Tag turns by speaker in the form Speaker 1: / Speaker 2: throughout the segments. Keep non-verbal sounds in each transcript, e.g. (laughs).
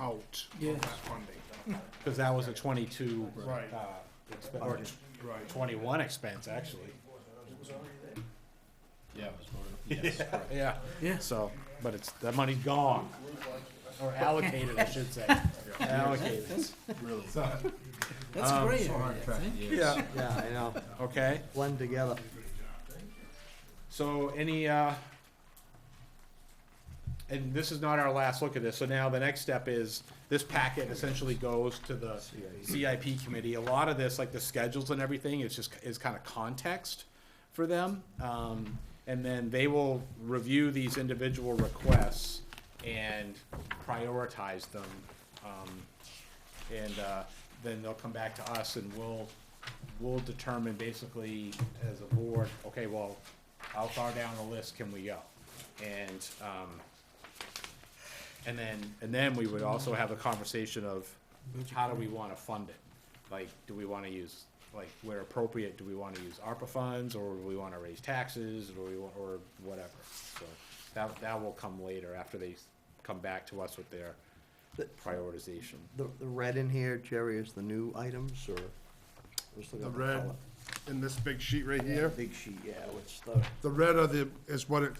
Speaker 1: out
Speaker 2: Yes.
Speaker 1: of that funding. (laughs)
Speaker 3: Because that was a twenty-two,
Speaker 1: Right.
Speaker 3: uh, expen- or t-
Speaker 1: Right.
Speaker 3: twenty-one expense, actually. (laughs)
Speaker 4: Yeah, it was voted, yes, correct.
Speaker 3: Yeah.
Speaker 2: Yeah.
Speaker 3: So, but it's, that money's gone, or allocated, I should
Speaker 1: (laughs)
Speaker 3: say, allocated.
Speaker 4: really.
Speaker 2: That's
Speaker 3: Um,
Speaker 2: great.
Speaker 1: so hard
Speaker 2: I
Speaker 1: track.
Speaker 2: think.
Speaker 4: Yes.
Speaker 5: Yeah, I know,
Speaker 3: Okay,
Speaker 5: blend together.
Speaker 3: so any, uh, and this is not our last look at this, so now the next step is, this packet essentially goes to the CIP committee. A lot of this, like the schedules and everything, is just, is kind of context for them. Um, and then they will review these individual requests and prioritize them. Um, and, uh, then they'll come back to us and we'll, we'll determine basically as a board, okay, well, how far down the list can we go? And, um, and then, and then we would also have a conversation of how do we wanna fund it? Like, do we wanna use, like, where appropriate, do we wanna use ARPA funds, or do we wanna raise taxes, or we, wa- or whatever? So that, that will come later, after they come back to us with their prioritization.
Speaker 5: The, the red in here, Jerry, is the new items, or? let's look
Speaker 1: The
Speaker 5: at
Speaker 1: red
Speaker 5: color.
Speaker 1: in this big sheet right
Speaker 5: Yeah,
Speaker 1: here,
Speaker 5: Big sheet, yeah, which the,
Speaker 1: the red are the, is what it,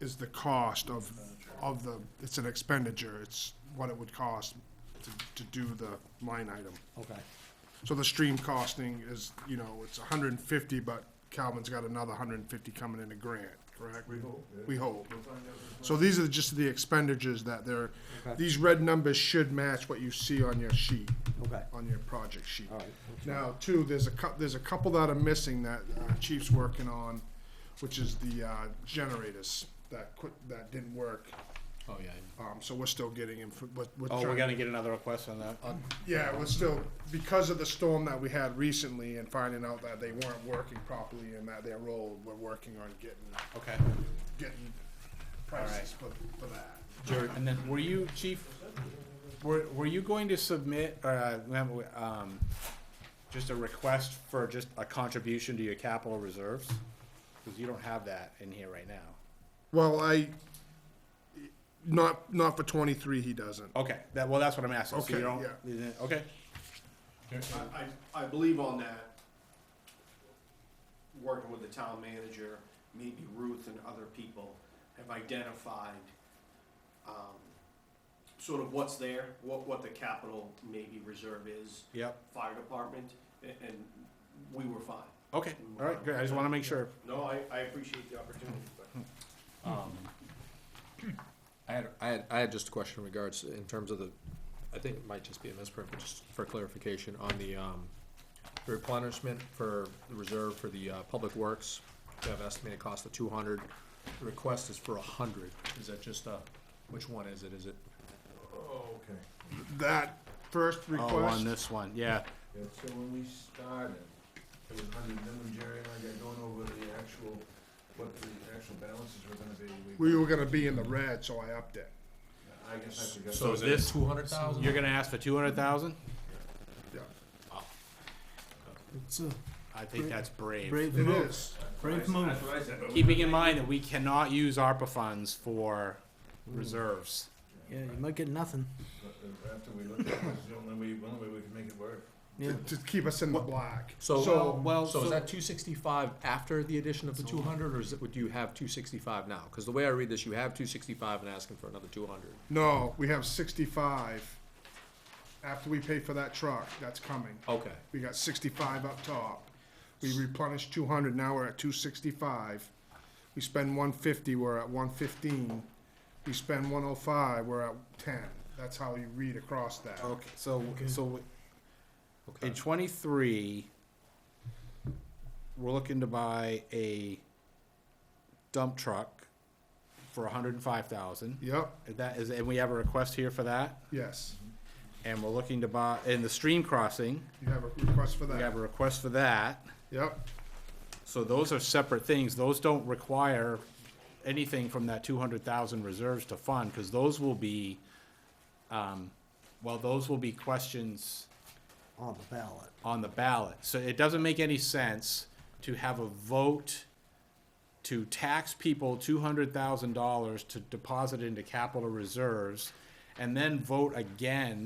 Speaker 1: is the cost of, of the, it's an expenditure. It's what it would cost to, to do the line item.
Speaker 5: okay,
Speaker 1: So the stream costing is, you know, it's hundred and fifty, but Calvin's got another hundred and fifty coming in a grant, correct? We hope. We hope. So these are just the expenditures that they're,
Speaker 5: Okay.
Speaker 1: these red numbers should match what you see on your sheet,
Speaker 5: okay,
Speaker 1: on your project sheet.
Speaker 5: all right.
Speaker 1: Now, too, there's a cou- there's a couple that are missing that uh, Chief's working on, which is the uh, generators that quit, that didn't work.
Speaker 4: Oh, yeah.
Speaker 1: Um, so we're still getting info, but we're
Speaker 3: Oh, we're
Speaker 1: trying-
Speaker 3: gonna get another request on that?
Speaker 1: Uh, yeah, we're still, because of the storm that we had recently and finding out that they weren't working properly and that their role, we're working on getting,
Speaker 3: Okay.
Speaker 1: getting prices for, for that.
Speaker 3: Jerry, and then were you, chief, were, were you going to submit, uh, um, just a request for just a contribution to your capital reserves? Cause you don't have that in here right now.
Speaker 1: Well, I, not, not for twenty-three, he doesn't.
Speaker 3: Okay, that, well, that's what I'm asking, so you
Speaker 1: Okay,
Speaker 3: don't,
Speaker 1: yeah.
Speaker 3: you didn't- okay,
Speaker 6: I, I I believe on that, working with the town manager, maybe Ruth and other people have identified um, sort of what's there, what, what the capital maybe reserve is,
Speaker 3: yep,
Speaker 6: fire department, a- and we were fine.
Speaker 3: okay, all right, good, I just wanna make sure.
Speaker 6: No, I, I appreciate the opportunity, but.
Speaker 4: I had, I had, I had just a question in regards, in terms of the, I think it might just be a misprint, but just for clarification, on the, um, replenishment for the reserve for the, uh, public works, we have estimated cost of two hundred, the request is for a hundred, is that just a, which one is it, is it?
Speaker 7: Oh, Okay,
Speaker 1: That first
Speaker 3: Oh, on
Speaker 1: request,
Speaker 3: this one, yeah,
Speaker 7: yeah, so when we started, it was under, then when Jerry and I got going over the actual, what the actual balances were gonna be, we,
Speaker 1: we were gonna be in the red, so I upped it.
Speaker 7: I guess I forgot.
Speaker 3: so this,
Speaker 4: Two hundred thousand?
Speaker 3: you're gonna ask for two hundred thousand?
Speaker 1: Yeah,
Speaker 2: It's a
Speaker 3: I think that's brave.
Speaker 2: brave
Speaker 1: it
Speaker 2: move.
Speaker 1: is.
Speaker 2: Brave move.
Speaker 7: what I said, but
Speaker 3: Keeping in mind that we cannot use ARPA funds for reserves.
Speaker 2: Yeah, you might get nothing.
Speaker 7: after we looked at it, it was the only way, only way we could make it work.
Speaker 2: Yeah.
Speaker 1: To keep us in the black.
Speaker 4: So, well, so
Speaker 3: so-
Speaker 4: is that two sixty-five after the addition of the two hundred, or is it, would you have two sixty-five now? Cause the way I read this, you have two sixty-five and asking for another two hundred.
Speaker 1: No, we have sixty-five. After we pay for that truck, that's coming.
Speaker 4: Okay,
Speaker 1: We got sixty-five up top. We replenished two hundred, now we're at two sixty-five. We spend one fifty, we're at one fifteen. We spend one oh five, we're at ten. That's how you read across that.
Speaker 3: Okay, so, so
Speaker 4: okay.
Speaker 3: in twenty-three, we're looking to buy a dump truck for a hundred and five thousand.
Speaker 1: Yep,
Speaker 3: That is, and we have a request here for that,
Speaker 1: yes,
Speaker 3: and we're looking to buy, in the stream crossing,
Speaker 1: you have a request for
Speaker 3: we have
Speaker 1: that.
Speaker 3: a request for that.
Speaker 1: Yep,
Speaker 3: So those are separate things. Those don't require anything from that two hundred thousand reserves to fund, because those will be, um, well, those will be questions
Speaker 5: On the ballot.
Speaker 3: on the ballot. So it doesn't make any sense to have a vote to tax people two hundred thousand dollars to deposit into capital reserves and then vote again